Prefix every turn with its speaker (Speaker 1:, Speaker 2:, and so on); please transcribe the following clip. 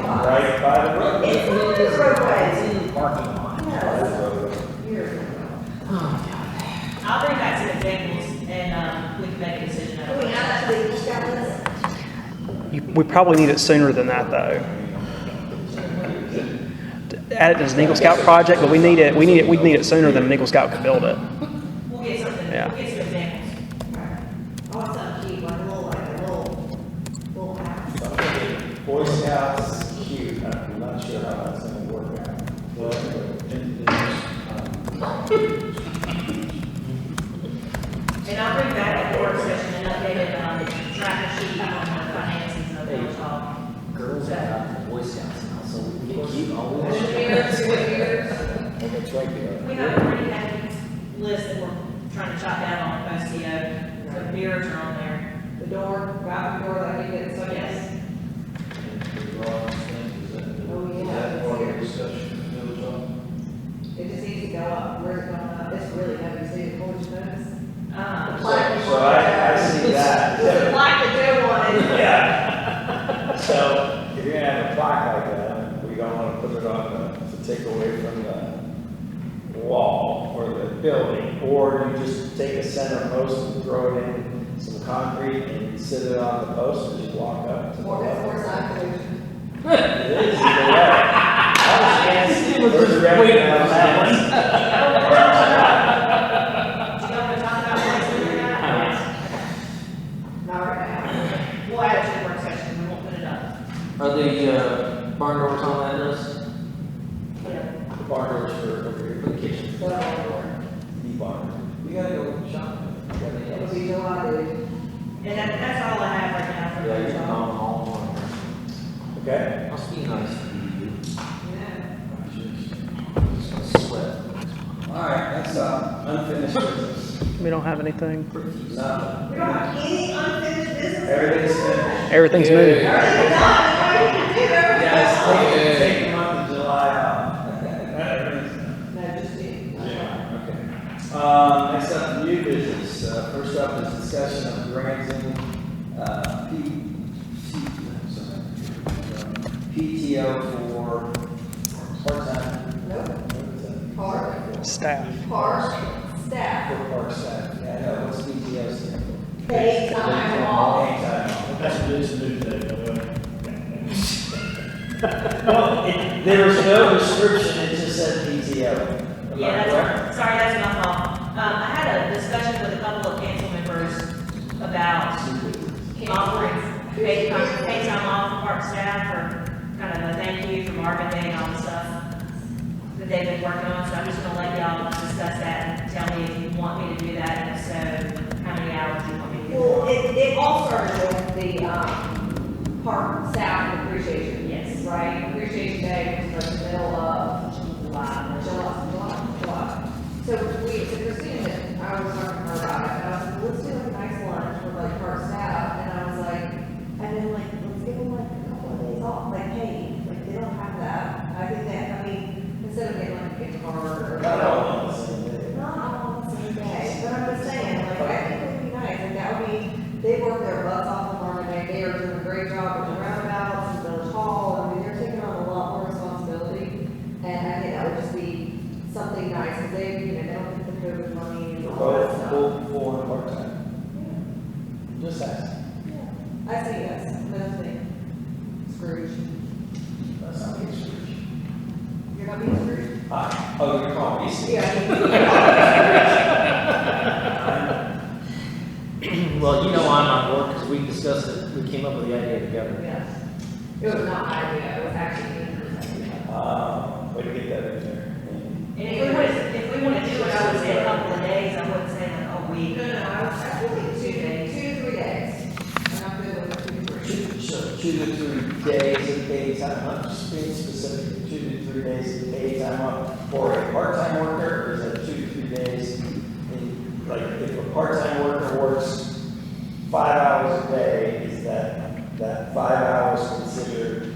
Speaker 1: right by the road.
Speaker 2: It's not the roadway,
Speaker 3: It's in the parking lot.
Speaker 2: it's years ago.
Speaker 4: I'll bring back to the tables and, um, we can make a decision.
Speaker 2: Can we actually just got this?
Speaker 5: You- We probably need it sooner than that, though. Add it as an Eagle Scout project, but we need it, we need it, we need it sooner than an Eagle Scout could build it.
Speaker 4: We'll get something, we'll
Speaker 5: Yeah.
Speaker 4: get some examples.
Speaker 2: Also keep like a little, like a little, little house.
Speaker 1: Boy Scouts, cute, I'm not sure how that's gonna work out. Well, anyway, and there's, um,
Speaker 4: And I'll bring back at the work session an updated, um, tracker sheet on the finances of the village hall.
Speaker 3: Girls are out in the Boy Scouts now, so we can keep all of this. And it's right there.
Speaker 4: We have a pretty hefty list that we're trying to chop down on post CO. The mirrors are on there.
Speaker 2: The door, right door, like you get, so
Speaker 4: Yes.
Speaker 6: And the wrong thing, is that,
Speaker 2: Oh, yeah.
Speaker 6: is that part of the discussion, Bill, John?
Speaker 2: It just needs to go up, where's it going up, it's really heavy, so you hold your nose.
Speaker 4: Um,
Speaker 1: so I, I see
Speaker 2: The
Speaker 1: that.
Speaker 2: plaque that Joe wanted.
Speaker 1: Yeah. So if you're gonna have a plaque like that, we don't wanna put it on the, to take away from the wall or the building. Or you just take a center post and throw it in some concrete and sit it on the post and just walk up to the
Speaker 2: More,
Speaker 1: level.
Speaker 2: more side pollution.
Speaker 1: It is, either way. I was fancy, there's a revenue on that one.
Speaker 4: Do you want to talk about what's in there?
Speaker 2: Not right now.
Speaker 4: We'll add it to the work session, we won't put it up.
Speaker 7: Are the, uh, barn doors on that list?
Speaker 4: Yeah.
Speaker 6: The barn doors for, for the kitchen.
Speaker 2: Well, or-
Speaker 6: The barn. We gotta go shopping. We gotta go.
Speaker 2: it'll be July, dude.
Speaker 4: And that, that's all I have right now for
Speaker 6: Yeah,
Speaker 4: the
Speaker 6: you
Speaker 4: village
Speaker 6: can
Speaker 4: hall.
Speaker 6: own all one.
Speaker 1: Okay,
Speaker 7: Must be nice to be you.
Speaker 2: Yeah.
Speaker 7: Sweat.
Speaker 6: All right, next up, unfinished business.
Speaker 5: We don't have anything.
Speaker 6: Nothing.
Speaker 2: We don't have any unfinished business.
Speaker 1: everything's finished.
Speaker 5: Everything's moved.
Speaker 2: Everything's done, what do you do?
Speaker 1: Guys, take,
Speaker 6: Yeah.
Speaker 1: take the month of July off. Everything's-
Speaker 2: No, just you.
Speaker 1: Yeah, okay. Um, next up, new business. Uh, first up is discussion of granting, uh, P, T, I'm sorry. PTO for part-time.
Speaker 2: Nope.
Speaker 1: For
Speaker 2: Park,
Speaker 5: Staff.
Speaker 2: park, staff,
Speaker 1: park staff, yeah, I know, what's PTO stand for?
Speaker 2: paid time off.
Speaker 1: That's There was no description, it just said PTO. Am I
Speaker 4: Yeah,
Speaker 1: correct?
Speaker 4: that's, sorry, that's my fault. Um, I had a discussion with a couple of council members about offering paid, paid time off for park staff or kind of a thank you for Marvin Day and all the stuff that they've been working on, so I'm just gonna let y'all discuss that and tell me if you want me to do that, and if so, how many hours you want me to do.
Speaker 2: Well, it, it all started with the, um, park staff appreciation.
Speaker 4: Yes.
Speaker 2: Right, appreciation day was like the middle of July, July, July, July. So we, so Christina, I was talking to her about it, and I was like, let's do a nice lunch with like park staff, and I was like, and then like, let's give them like a couple of days off, like, hey, like, they don't have that. I think that, I mean, instead of getting like a guitar or.
Speaker 1: Not all on the same day.
Speaker 2: Not all on the same day, but I'm just saying, like, I think it would be nice, and that would be, they work their butts off on Marvin Day, they are doing a great job with the roundabouts, and village hall, I mean, they're taking on a lot more responsibility, and I think that would just be something nice, because they, you know, they don't get the COVID money and all that
Speaker 1: Both
Speaker 2: stuff.
Speaker 1: full, full and part-time,
Speaker 2: Yeah,
Speaker 1: just asking.
Speaker 2: yeah. I say yes, that's the thing, Scrooge,
Speaker 1: That's not the issue.
Speaker 2: you're not being Scrooge?
Speaker 1: Ah, oh, you're calling me.
Speaker 2: Yeah.
Speaker 7: Well, you know I'm on board because we discussed it, we came up with the idea together.
Speaker 2: Yeah. It was not my idea, it was actually Andrew's idea.
Speaker 1: Uh, way to get that in there.
Speaker 4: And if we want, if we want to do it, I would say a couple of days, I wouldn't say like a week.
Speaker 2: No, no, I was, I feel like two days, two to three days. And I'm good with two to three.
Speaker 1: Two, so two to three days of paid time off, just being specific, two to three days of paid time off for a part-time worker, or is that two to three days? in- Like, if a part-time worker works five hours a day, is that, that five hours considered